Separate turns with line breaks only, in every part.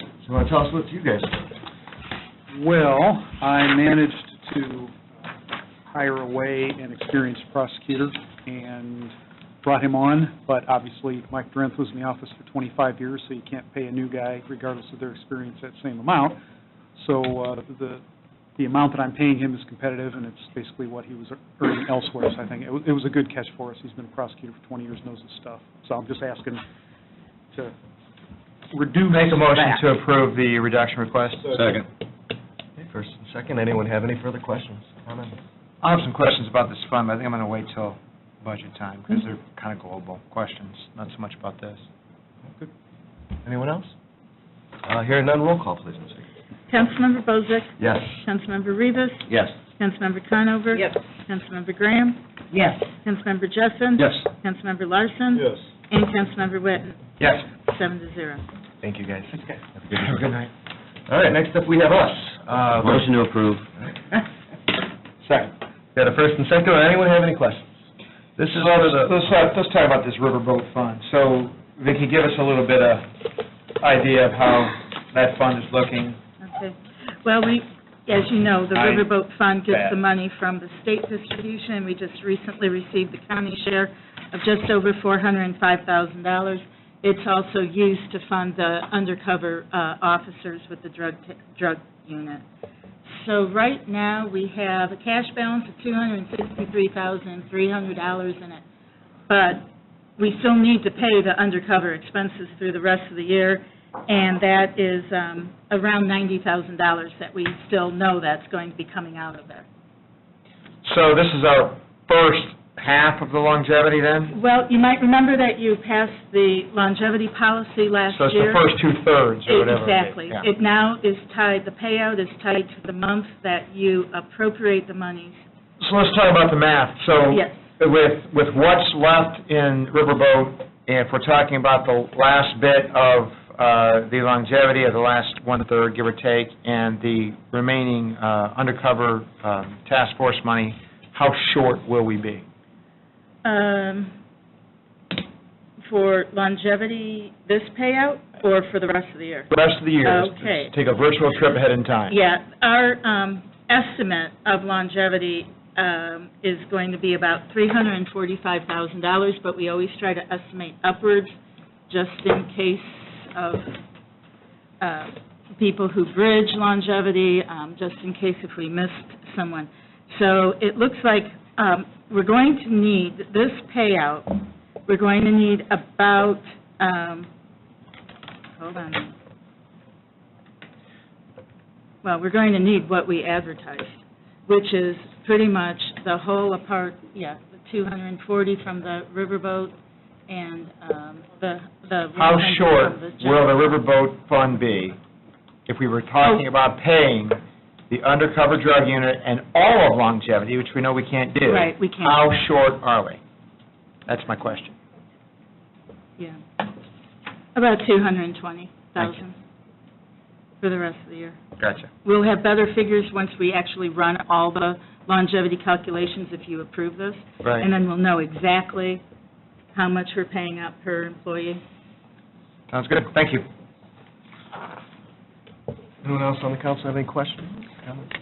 You want to tell us what you guys do?
Well, I managed to hire away an experienced prosecutor and brought him on, but obviously Mike Drenth was in the office for 25 years, so you can't pay a new guy regardless of their experience that same amount. So uh, the, the amount that I'm paying him is competitive, and it's basically what he was earning elsewhere, so I think it was, it was a good catch for us. He's been a prosecutor for 20 years, knows his stuff. So I'm just asking to reduce
Make a motion
that.
to approve the reduction request.
Second.
Okay, First and second, anyone have any further questions, comments?
I have some questions about this fund, but I think I'm going to wait till budget time, because they're
Mm-hmm.
kind of global questions, not so much about this.
Anyone else? Uh, Hearing none, roll call, please, Ms. Higgins.
Councilmember Bozick,
Yes.
Councilmember Rivas,
Yes.
Councilmember Conover.
Yes.
Councilmember Graham,
Yes.
Councilmember Jessen.
Yes.
Councilmember Larson. And Councilmember Witten,
Yes.
seven to zero.
Thank you, guys. Have a good night. Good night. All right, next up, we have us. Uh,
Motion to approve.
Second. Got a first and second, anyone have any questions? This is under the...
Let's, talk- let's talk about this riverboat fund. So Vicki, give us a little bit of idea of how that fund is looking.
Okay. Well, we, as you know, the
I-
Riverboat Fund gets
Bad.
the money from the state distribution, and we just recently received the county share of just over $405,000. It's also used to fund the undercover uh, officers with the drug, t- drug unit. So right now, we have a cash balance of $263,300 in it, but we still need to pay the undercover expenses through the rest of the year, and that is um, around $90,000 that we still know that's going to be coming out of there.
So this is our first half of the longevity then?
Well, you might remember that you passed the longevity policy last
So it's the
year.
first two-thirds or whatever. it is.
Exactly.
Yeah.
It now is tied, the payout is tied to the month that you appropriate the monies.
So let's talk about the math. So
Yes.
with, with what's left in Riverboat, and if we're talking about the last bit of uh, the longevity of the last one-third, give or take, and the remaining uh, undercover um, task force money, how short will we be?
Um, For longevity, this payout, or for the rest of the year?
The rest of the year, let's-
Okay.
let's take a virtual trip ahead in time.
Yeah, our um, estimate of longevity um, is going to be about $345,000, but we always try to estimate upwards, just in case of uh, people who bridge longevity, um, just in case if we missed someone. So it looks like um, we're going to need, this payout, we're going to need about, um, hold on a minute. Well, we're going to need what we advertised, which is pretty much the whole apart, yeah, the 240 from the riverboat and um, the, the.
How
100
short
from the
will
general-
the Riverboat Fund be if we were talking
Oh.
about paying the undercover drug unit and all of longevity, which we know we can't do?
Right, we can't.
How short are we? That's my question.
Yeah. About 220,000 for the rest of the year.
Gotcha.
We'll have better figures once we actually run all the longevity calculations if you approve this.
Right.
And then we'll know exactly how much we're paying out per employee.
Sounds good. Thank you.
Anyone else on the council have any questions, comments?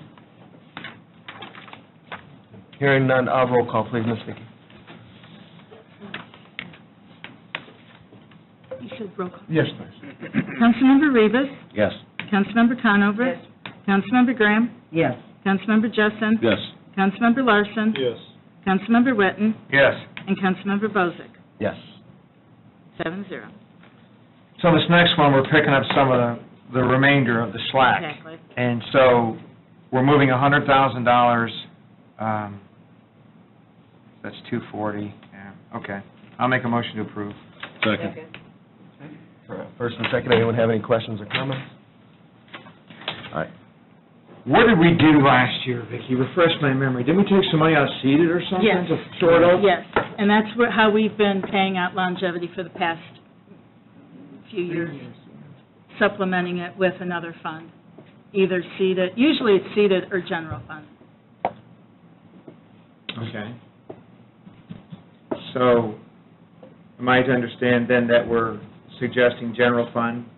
Hearing none, uh, roll call, please, Ms. Vicki.
You said roll call.
Yes, please.
Councilmember Rivas,
Yes.
Councilmember Conover.
Yes.
Councilmember Graham,
Yes.
Councilmember Jessen.
Yes.
Councilmember Larson.
Yes.
Councilmember Witten,
Yes.
and Councilmember Bozick,
Yes.
seven zero.
So this next one, we're picking up some of the the remainder of the slack.
Exactly.
And so we're moving $100,000, um, that's 240, yeah, okay. I'll make a motion to approve.
Second.
For, uh, First and second, anyone have any questions or comments? All right.
What did we do last year, Vicki? Refresh my memory. Didn't we take some money out of seeded or something?
Yes.
to Sort of?
Yes, and that's where- how we've been paying out longevity for the past few years, supplementing it with another fund, either seeded, usually it's seeded or general fund.
Okay. So, am I to understand then that we're suggesting general fund